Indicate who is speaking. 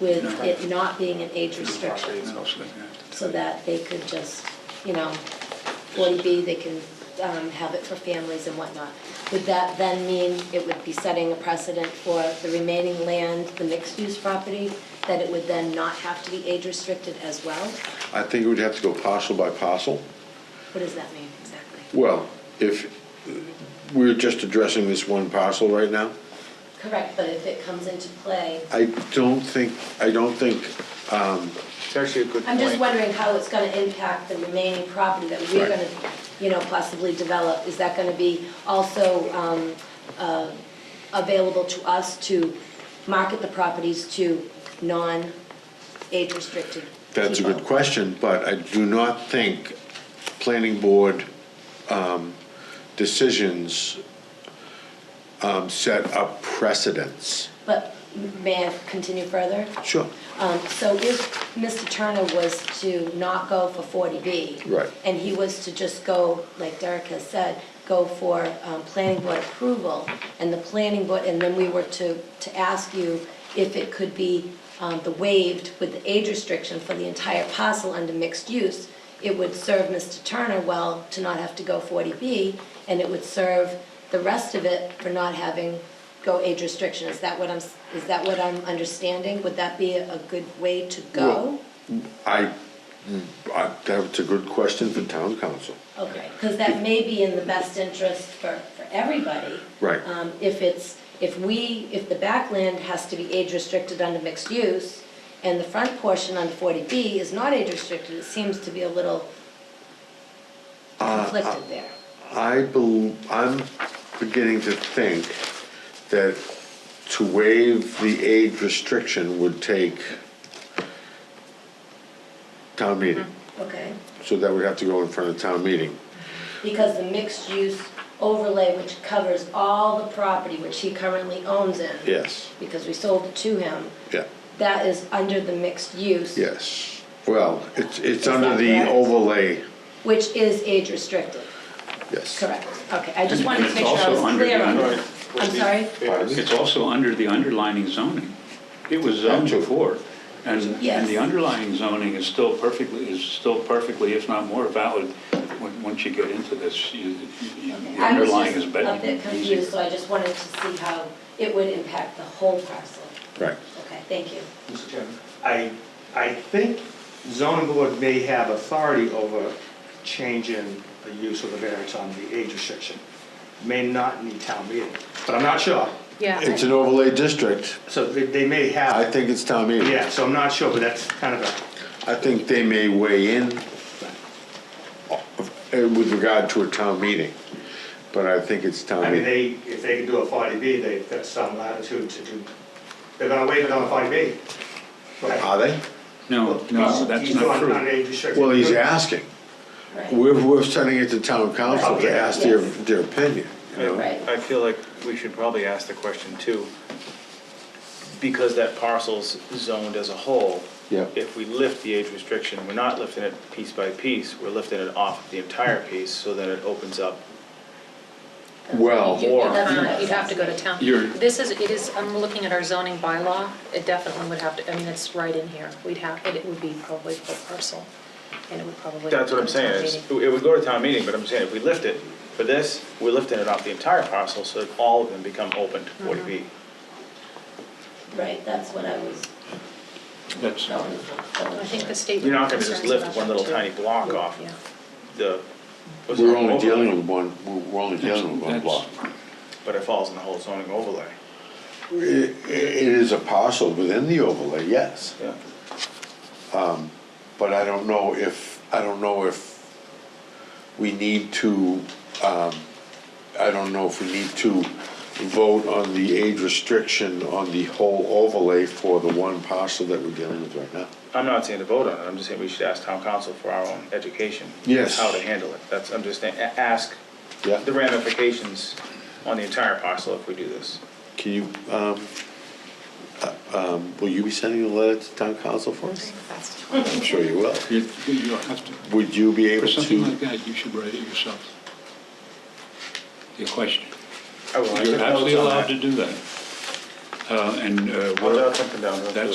Speaker 1: with
Speaker 2: No.
Speaker 1: it not being an age restriction, so that they could just, you know, 40B, they can um, have it for families and whatnot. Would that then mean it would be setting a precedent for the remaining land, the mixed-use property, that it would then not have to be age restricted as well?
Speaker 3: I think it would have to go parcel by parcel.
Speaker 1: What does that mean exactly?
Speaker 3: Well, if, we're just addressing this one parcel right now.
Speaker 1: Correct, but if it comes into play,
Speaker 3: I don't think, I don't think,
Speaker 2: It's actually a good
Speaker 1: I'm just
Speaker 2: point.
Speaker 1: wondering how it's gonna impact the remaining property that we're
Speaker 3: Right.
Speaker 1: gonna, you know, possibly develop. Is that gonna be also um, uh, available to us to market the properties to non-age restricted
Speaker 3: that's a good
Speaker 1: people?
Speaker 3: question, but I do not think planning board um, decisions um, set up precedents.
Speaker 1: But may I continue further?
Speaker 3: Sure.
Speaker 1: Um, So if Mr. Turner was to not go for 40B.
Speaker 3: Right.
Speaker 1: And he was to just go, like Derek has said, go for um, planning board approval, and the planning board, and then we were to, to ask you if it could be um, the waived with the age restriction for the entire parcel under mixed use, it would serve Mr. Turner well to not have to go 40B, and it would serve the rest of it for not having go age restriction. Is that what I'm, is that what I'm understanding? Would that be a good way to go?
Speaker 3: I, I- that's a good question for town council.
Speaker 1: Okay, because that may be in the best interest for, for everybody.
Speaker 3: Right.
Speaker 1: Um, If it's, if we, if the backland has to be age restricted under mixed use, and the front portion under 40B is not age restricted, it seems to be a little conflicted there.
Speaker 3: I bel I'm beginning to think that to waive the age restriction would take town meeting.
Speaker 1: Okay,
Speaker 3: So that would have to go in front of town meeting.
Speaker 1: because the mixed use overlay, which covers all the property which he currently owns in.
Speaker 3: Yes,
Speaker 1: Because we sold it to him,
Speaker 3: yeah,
Speaker 1: that is under the mixed use.
Speaker 3: yes. Well, it's, it's
Speaker 1: Is
Speaker 3: under
Speaker 1: that
Speaker 3: the
Speaker 1: correct?
Speaker 3: overlay,
Speaker 1: Which is age restricted.
Speaker 3: yes.
Speaker 1: Correct, okay, I just wanted to
Speaker 4: It's
Speaker 1: make sure I
Speaker 4: also
Speaker 1: was
Speaker 4: under
Speaker 1: clear
Speaker 4: the-
Speaker 1: on
Speaker 4: Right.
Speaker 1: that. I'm sorry?
Speaker 4: It's also under the underlyning zoning. It was zoned
Speaker 3: Gotcha.
Speaker 4: before. And, and the
Speaker 1: Yes.
Speaker 4: underlying zoning is still perfectly, is still perfectly, if not more valid, when- once you get into this, you, you- the
Speaker 1: I was
Speaker 4: underlying is
Speaker 1: just
Speaker 4: better.
Speaker 1: a bit confused, so I just wanted to see how it would impact the whole parcel.
Speaker 3: Right.
Speaker 1: Okay, thank you.
Speaker 5: Mr. Chairman. I, I think zoning board may have authority over changing the use of the variance on the age restriction. May not need town meeting, but I'm not sure.
Speaker 3: It's an overlay district.
Speaker 5: So they, they may
Speaker 3: I
Speaker 5: have,
Speaker 3: think it's town meeting.
Speaker 5: yeah, so I'm not sure, but that's kind of a,
Speaker 3: I think they may weigh in uh, with regard to a town meeting, but I think it's town
Speaker 5: I mean,
Speaker 3: meeting.
Speaker 5: they, if they can do a forty B, they've got some latitude to do, they're gonna waive it on a forty B.
Speaker 3: Are they?
Speaker 4: No, no, Oh, that's not
Speaker 5: On
Speaker 4: true.
Speaker 5: age restriction.
Speaker 3: Well, he's asking.
Speaker 1: Right.
Speaker 3: We're, we're sending it to town council to ask their,
Speaker 1: Yes.
Speaker 3: their opinion, you
Speaker 4: uh,
Speaker 3: know?
Speaker 1: Right.
Speaker 6: I feel like we should probably ask the question too, because that parcel's zoned as a whole.
Speaker 3: Yeah.
Speaker 6: If we lift the age restriction, we're not lifting it piece by piece, we're lifting it off the entire piece, so then it opens up.
Speaker 3: Well,
Speaker 7: You-
Speaker 6: Or-
Speaker 7: You'd have to- you'd have to go to town.
Speaker 4: You're-
Speaker 7: This is, it is, I'm looking at our zoning bylaw, it definitely would have to, I mean, it's right in here. We'd have, it it would be probably full parcel, and it would probably.
Speaker 6: That's what
Speaker 7: go
Speaker 6: I'm
Speaker 7: to town
Speaker 6: saying, is,
Speaker 7: meeting.
Speaker 6: it would go to town meeting, but I'm saying if we lift it for this, we're lifting it off the entire parcel, so that all of them become open to forty B.
Speaker 7: Mm-hmm.
Speaker 1: Right, that's what I was
Speaker 4: That's,
Speaker 1: going for.
Speaker 7: I think the state.
Speaker 6: You're not gonna just lift one little tiny block off
Speaker 7: Yeah.
Speaker 6: the. what's
Speaker 3: we're
Speaker 6: it,
Speaker 3: only
Speaker 6: overlay,
Speaker 3: dealing with one, we're only dealing with one
Speaker 4: That's-
Speaker 3: block.
Speaker 6: But it falls in the whole zoning overlay,
Speaker 3: It, it is a parcel within the overlay, yes,
Speaker 6: yeah.
Speaker 3: but I don't know if, I don't know if we need to, um, I don't know if we need to vote on the age restriction on the whole overlay for the one parcel that we're dealing with right now.
Speaker 6: I'm not saying to vote on it, I'm just saying we should ask town council for our own education.
Speaker 3: Yes.
Speaker 6: How to handle it, that's, I'm just saying, a- ask
Speaker 3: Yeah.
Speaker 6: the ramifications on the entire parcel if we do this.
Speaker 3: Can you, um, uh, um, will you be sending a letter to town council for us?
Speaker 7: That's-
Speaker 3: I'm sure you will.
Speaker 4: you, you'll have to,
Speaker 3: Would you be
Speaker 4: for
Speaker 3: able
Speaker 4: something like
Speaker 3: to,
Speaker 4: that, you should write it yourself. Your question.
Speaker 6: I would
Speaker 4: You're
Speaker 6: like to vote on
Speaker 4: absolutely allowed
Speaker 6: that.
Speaker 4: to do that. Uh, and, uh,
Speaker 6: I'll
Speaker 4: what-
Speaker 6: jot something down. real quick.
Speaker 4: That's